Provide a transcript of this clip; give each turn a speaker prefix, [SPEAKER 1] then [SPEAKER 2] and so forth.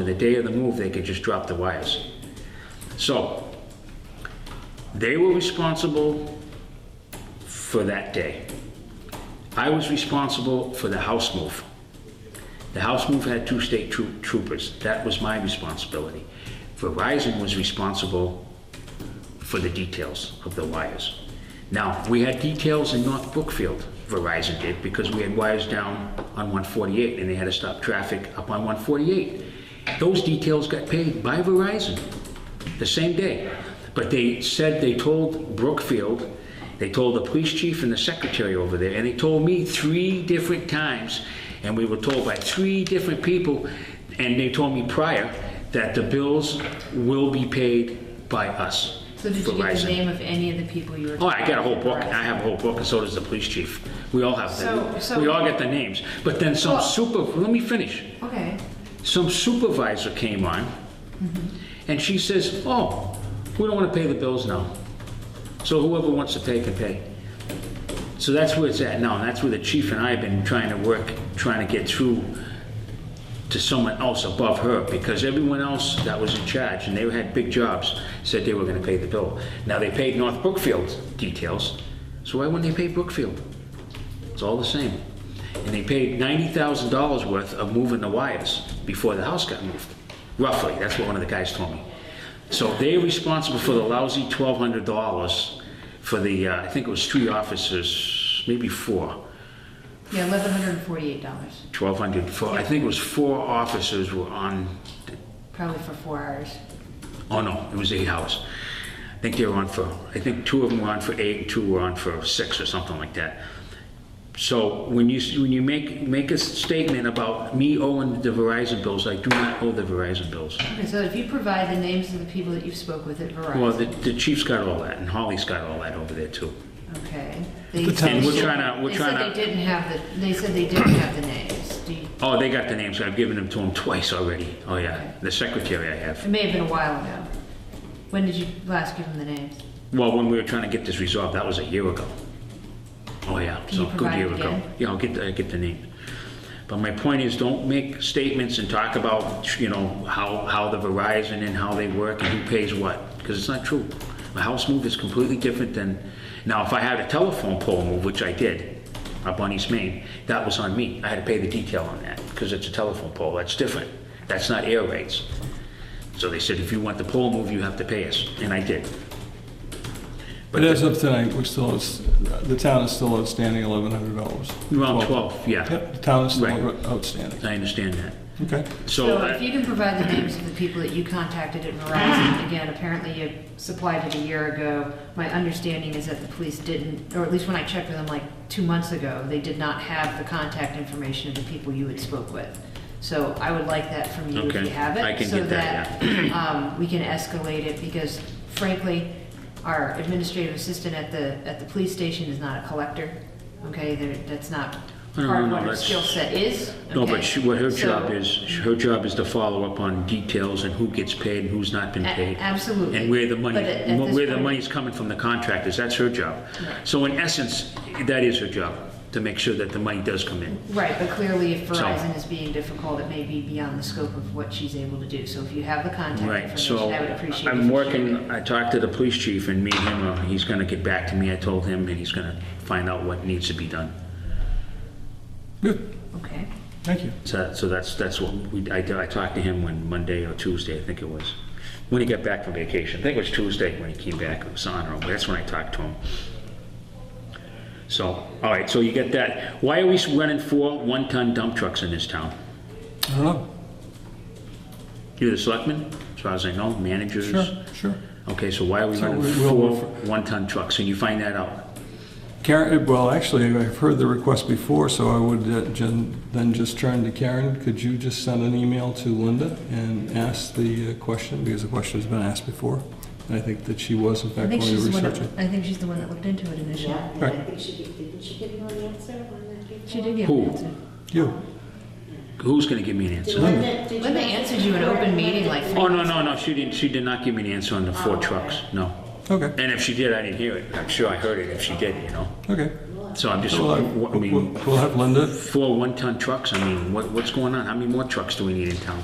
[SPEAKER 1] On the day of the move, they could just drop the wires. So, they were responsible for that day. I was responsible for the house move. The house move had two state troo- troopers. That was my responsibility. Verizon was responsible for the details of the wires. Now, we had details in North Brookfield, Verizon did, because we had wires down on 148 and they had to stop traffic up on 148. Those details got paid by Verizon the same day. But they said they told Brookfield, they told the police chief and the secretary over there, and they told me three different times, and we were told by three different people, and they told me prior that the bills will be paid by us.
[SPEAKER 2] So did you get
[SPEAKER 1] Verizon.
[SPEAKER 2] the name of any of the people you were?
[SPEAKER 1] Oh, I got a whole book, and I
[SPEAKER 2] Verizon.
[SPEAKER 1] have a whole book, and so does the police chief. We all have
[SPEAKER 2] So-
[SPEAKER 1] that.
[SPEAKER 2] so-
[SPEAKER 1] We all get the names. But then some
[SPEAKER 2] Well-
[SPEAKER 1] super, let me finish.
[SPEAKER 2] Okay,
[SPEAKER 1] Some supervisor came on, and she says, oh, we don't want to pay the bills now. So whoever wants to pay can pay. So that's where it's at now, and that's where the chief and I have been trying to work, trying to get through to someone else above her, because everyone else that was in charge, and they had big jobs, said they were gonna pay the bill. Now, they paid North Brookfield details, so why wouldn't they pay Brookfield? It's all the same. And they paid ninety thousand dollars worth of moving the wires before the house got moved. Roughly, that's what one of the guys told me. So they're responsible for the lousy twelve hundred dollars for the, uh, I think it was three officers, maybe four.
[SPEAKER 2] yeah, eleven hundred and forty-eight dollars,
[SPEAKER 1] Twelve hundred for I think it was four officers were on,
[SPEAKER 2] probably for four hours.
[SPEAKER 1] oh no, it was eight hours. I think they were on for, I think two of them were on for eight, and two were on for six or something like that. So when you, when you make, make a statement about me owing the Verizon bills, I do not owe the Verizon bills.
[SPEAKER 2] Okay, so if you provide the names of the people that you spoke with at
[SPEAKER 1] Well,
[SPEAKER 2] Verizon,
[SPEAKER 1] the, the chief's got all that, and Holly's got all that over there too.
[SPEAKER 2] okay. They-
[SPEAKER 3] The town-
[SPEAKER 1] And we're trying to, we're
[SPEAKER 2] They
[SPEAKER 1] trying
[SPEAKER 2] said
[SPEAKER 1] to.
[SPEAKER 2] they didn't have the, they said they didn't have the names. Do you-
[SPEAKER 1] Oh, they got the names, I've given them to them twice already. Oh yeah, the secretary I have.
[SPEAKER 2] It may have been a while ago. When did you last give them the names?
[SPEAKER 1] Well, when we were trying to get this resolved, that was a year ago. Oh, yeah,
[SPEAKER 2] Can
[SPEAKER 1] so
[SPEAKER 2] you
[SPEAKER 1] a good
[SPEAKER 2] provide
[SPEAKER 1] year
[SPEAKER 2] it
[SPEAKER 1] ago.
[SPEAKER 2] again?
[SPEAKER 1] Yeah, I'll get, i get the name. But my point is, don't make statements and talk about, you know, how, how the Verizon and how they work and who pays what, because it's not true. A house move is completely different than, now, if I had a telephone pole move, which I did, up on East Main, that was on me. I had to pay the detail on that, because it's a telephone pole, that's different. That's not air rates. So they said, if you want the pole move, you have to pay us, and I did.
[SPEAKER 3] But as of tonight, we're still, the town is still outstanding eleven hundred dollars.
[SPEAKER 1] Around 12, yeah.
[SPEAKER 3] Yep, the town is still
[SPEAKER 1] Right.
[SPEAKER 3] outstanding.
[SPEAKER 1] I understand that.
[SPEAKER 3] Okay.
[SPEAKER 1] So,
[SPEAKER 2] So if
[SPEAKER 1] uh,
[SPEAKER 2] you can provide the names of the people that you contacted at
[SPEAKER 1] Mm-hmm.
[SPEAKER 2] Verizon, again, apparently you supplied it a year ago. My understanding is that the police didn't, or at least when I checked with them like two months ago, they did not have the contact information of the people you had spoke with. So I would like that from you if
[SPEAKER 1] Okay,
[SPEAKER 2] you have
[SPEAKER 1] I
[SPEAKER 2] it,
[SPEAKER 1] can
[SPEAKER 2] so
[SPEAKER 1] get that,
[SPEAKER 2] that um, we can escalate it because frankly, our administrative assistant at the, at the police station is not a collector, okay? They're- That's not
[SPEAKER 1] No, no,
[SPEAKER 2] part of
[SPEAKER 1] no,
[SPEAKER 2] what her
[SPEAKER 1] that's-
[SPEAKER 2] skill set is.
[SPEAKER 1] no,
[SPEAKER 2] okay?
[SPEAKER 1] but she- what her
[SPEAKER 2] So-
[SPEAKER 1] job is, her job is to follow up on details and who gets paid and who's not been
[SPEAKER 2] A-
[SPEAKER 1] paid.
[SPEAKER 2] absolutely.
[SPEAKER 1] And where the money,
[SPEAKER 2] But at- at this
[SPEAKER 1] where the
[SPEAKER 2] point-
[SPEAKER 1] money's coming from the contractors, that's her job.
[SPEAKER 2] Right.
[SPEAKER 1] So in essence, that is her job, to make sure that the money does come in.
[SPEAKER 2] Right, but clearly if
[SPEAKER 1] So-
[SPEAKER 2] Verizon is being difficult, it may be beyond the scope of what she's able to do. So if you have the contact
[SPEAKER 1] Right, so
[SPEAKER 2] information, I would appreciate it. if
[SPEAKER 1] I'm
[SPEAKER 2] you
[SPEAKER 1] working,
[SPEAKER 2] shared it.
[SPEAKER 1] I talked to the police chief and me and him, uh, he's gonna get back to me, I told him, and he's gonna find out what needs to be done.
[SPEAKER 3] Good,
[SPEAKER 2] Okay,
[SPEAKER 3] thank you.
[SPEAKER 1] So, so that's, that's what we, I, I talked to him when Monday or Tuesday, I think it was, when he got back from vacation. I think it was Tuesday when he came back, it was on or that's when I talked to him. So, all right, so you get that. Why are we running four one-ton dump trucks in this town?
[SPEAKER 3] I don't know.
[SPEAKER 1] You're the selectman, as far as I know, managers?
[SPEAKER 3] Sure, sure.
[SPEAKER 1] Okay, so why are we
[SPEAKER 3] So
[SPEAKER 1] running
[SPEAKER 3] we- we'll-
[SPEAKER 1] four
[SPEAKER 3] we'll-
[SPEAKER 1] one-ton trucks? And you find that out?
[SPEAKER 3] Karen, eh, well, actually, I've heard the request before, so I would uh, gen- then just turn to Karen. Could you just send an email to Linda and ask the uh, question, because the question's been asked before? And I think that she was in
[SPEAKER 2] I
[SPEAKER 3] fact
[SPEAKER 2] think
[SPEAKER 3] going to
[SPEAKER 2] she's the one,
[SPEAKER 3] research it.
[SPEAKER 2] that- I think she's the one that looked into it initially.
[SPEAKER 4] Yeah, and I
[SPEAKER 3] Right.
[SPEAKER 4] think she did, didn't she give you an answer on that before?
[SPEAKER 2] She did give
[SPEAKER 1] Who?
[SPEAKER 2] an answer.
[SPEAKER 3] You,
[SPEAKER 1] Who's gonna give me an
[SPEAKER 4] Did
[SPEAKER 1] answer?
[SPEAKER 4] Linda, did you?
[SPEAKER 2] Linda answered you in open meeting like three
[SPEAKER 1] Oh, no, no, no, she didn't, she did not give me an answer on the
[SPEAKER 3] Oh,
[SPEAKER 1] four trucks, no.
[SPEAKER 3] okay,
[SPEAKER 1] And if she did, I didn't hear it. I'm sure I heard it if she did, you know?
[SPEAKER 3] okay.
[SPEAKER 1] So I'm just,
[SPEAKER 3] Well, I-
[SPEAKER 1] I
[SPEAKER 3] We'll
[SPEAKER 1] mean,
[SPEAKER 3] we'll have Linda
[SPEAKER 1] four one-ton trucks, I mean, what, what's going on? How many more trucks do we need in town?